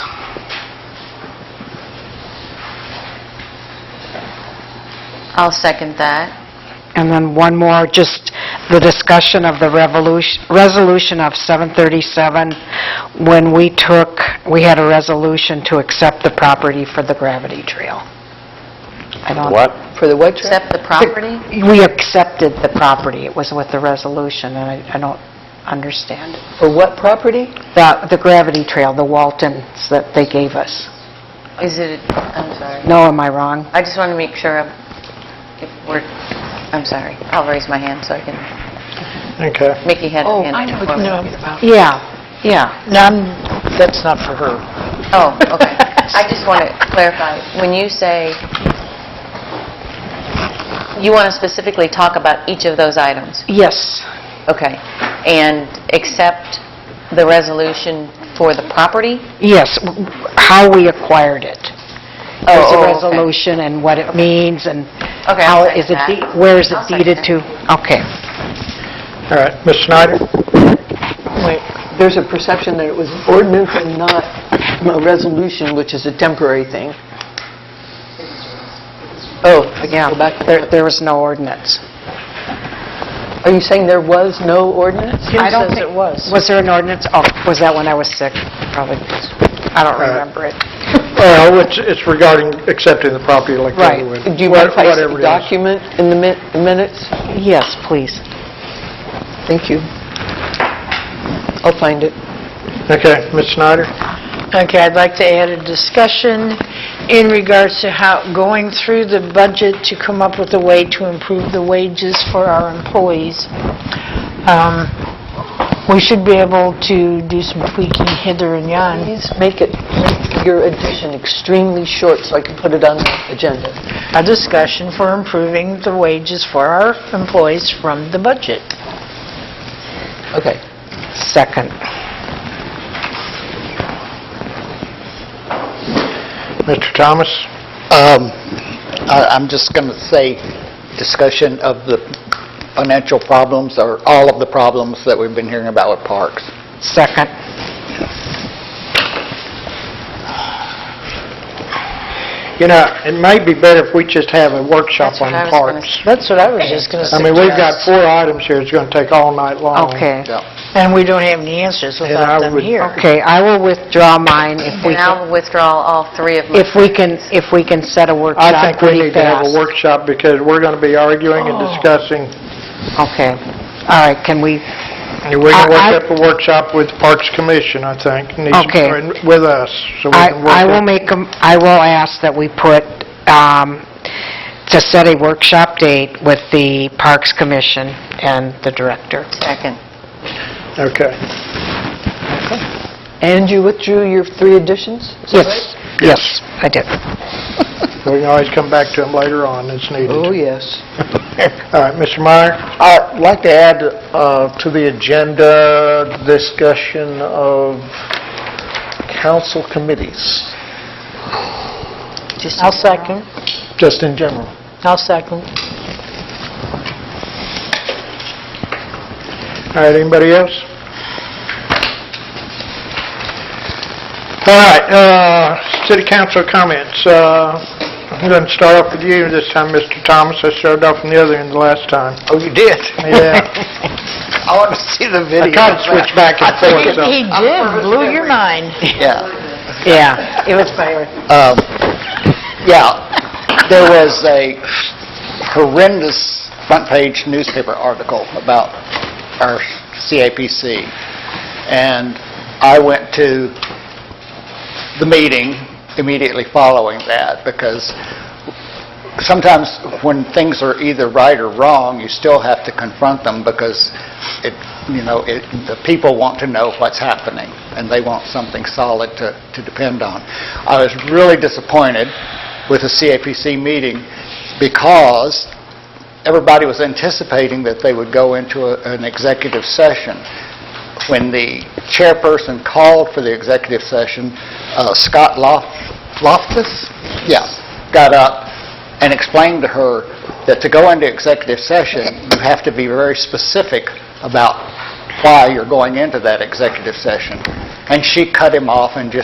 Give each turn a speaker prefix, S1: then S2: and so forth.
S1: I'll second that.
S2: And then one more, just the discussion of the revolution, resolution of 737, when we took, we had a resolution to accept the property for the gravity trail. I don't-
S3: What?
S4: For the what trip?
S1: Accept the property?
S2: We accepted the property, it was with the resolution, and I- I don't understand it.
S4: For what property?
S2: The the gravity trail, the Waltons that they gave us.
S1: Is it, I'm sorry.
S2: No, am I wrong?
S1: I just want to make sure of- if we're, I'm sorry. I'll raise my hand so I can,
S3: Okay.
S1: Mickey had her
S5: Oh,
S1: hand.
S5: I know what
S1: before.
S5: you're talking about.
S2: Yeah, yeah.
S5: No, I'm- that's not for her.
S1: Oh, okay. I just want to clarify, when you say, you want to specifically talk about each of those items?
S2: Yes,
S1: Okay. And accept the resolution for the property?
S2: yes, w- how we acquired it. There's
S1: Oh,
S2: a
S1: oh, okay.
S2: resolution and what it means and
S1: Okay,
S2: how
S1: I'll
S2: is it,
S1: second
S2: de-
S1: that.
S2: where is it
S1: I'll second
S2: deeded
S1: it.
S2: to? Okay.
S3: All right, Ms. Snyder?
S5: Wait,
S4: There's a perception that it was an ordinance and not a resolution, which is a temporary thing. Oh, I can go back to
S2: There,
S4: that.
S2: there was no ordinance.
S4: Are you saying there was no ordinance?
S2: I don't
S5: says it
S2: think-
S5: was.
S2: Was there an ordinance? Oh, was that when I was sick? Probably, I don't remember it.
S3: Well, it's, it's regarding accepting the property like the other
S2: Right.
S3: one.
S4: Do you mind if I see
S3: Whatever
S4: the
S3: it is.
S4: document in the min- the minutes?
S2: Yes, please.
S4: Thank you. I'll find it.
S3: Okay, Ms. Snyder?
S5: Okay, I'd like to add a discussion in regards to how, going through the budget to come up with a way to improve the wages for our employees. Um, We should be able to do some tweaking hither and yon.
S4: Please make it, make your addition extremely short so I can put it on the agenda.
S5: A discussion for improving the wages for our employees from the budget.
S4: Okay.
S2: Second.
S3: Mr. Thomas?
S6: Um, I- I'm just going to say, discussion of the financial problems, or all of the problems that we've been hearing about with parks.
S2: Second.
S3: You know, it might be better if we just have a workshop
S1: That's what
S3: on
S1: I was gonna
S3: parks.
S5: That's what I was just going to
S3: I
S5: suggest.
S3: mean, we've got four items here, it's going to take all night long.
S2: Okay.
S5: And we don't have any answers
S3: I
S5: without them
S3: would-
S5: here.
S2: Okay, I will withdraw mine if we
S1: And
S2: can,
S1: I'll withdraw all three of my
S2: if we can, if we can set a workshop
S3: I think we
S2: pretty
S3: need to have a
S2: fast. Oh.
S3: workshop because we're going to be arguing and discussing.
S2: Okay. All right, can we,
S3: And We're going to
S2: I- I-
S3: work up a workshop with Parks Commission, I think, needs to
S2: Okay.
S3: join with us, so we
S2: I
S3: can work
S2: I will
S3: it.
S2: make, a- I will ask that we put, um, to set a workshop date with the Parks Commission and the director.
S1: second.
S3: Okay.
S4: And you withdrew your three additions? Is that right?
S2: Yes, yes, I did.
S3: We can always come back to them later on as needed.
S4: Oh, yes.
S3: All right, Mr. Meyer?
S6: I'd like to add uh, to the agenda discussion of council committees,
S1: Just
S5: I'll second.
S6: just in general.
S5: I'll second.
S3: All right, anybody else? All right, uh, city council comments. Uh, I'm going to start off with you this time, Mr. Thomas. I started off on the other end the last time.
S6: Oh, you did?
S3: Yeah,
S6: I want to see the video.
S3: I tried to switch back and forth, so.
S5: He did, blew your mind.
S6: Yeah.
S2: Yeah, it was by...
S6: Um, Yeah, there was a horrendous front-page newspaper article about our CAPC, and I went to the meeting immediately following that, because sometimes when things are either right or wrong, you still have to confront them, because it, you know, it, the people want to know what's happening, and they want something solid to, to depend on. I was really disappointed with the CAPC meeting, because everybody was anticipating that they would go into a- an executive session. When the chairperson called for the executive session, uh, Scott Lof- Loftus, yeah, got up and explained to her that to go into executive session, you have to be very specific about why you're going into that executive session. And she cut him off and just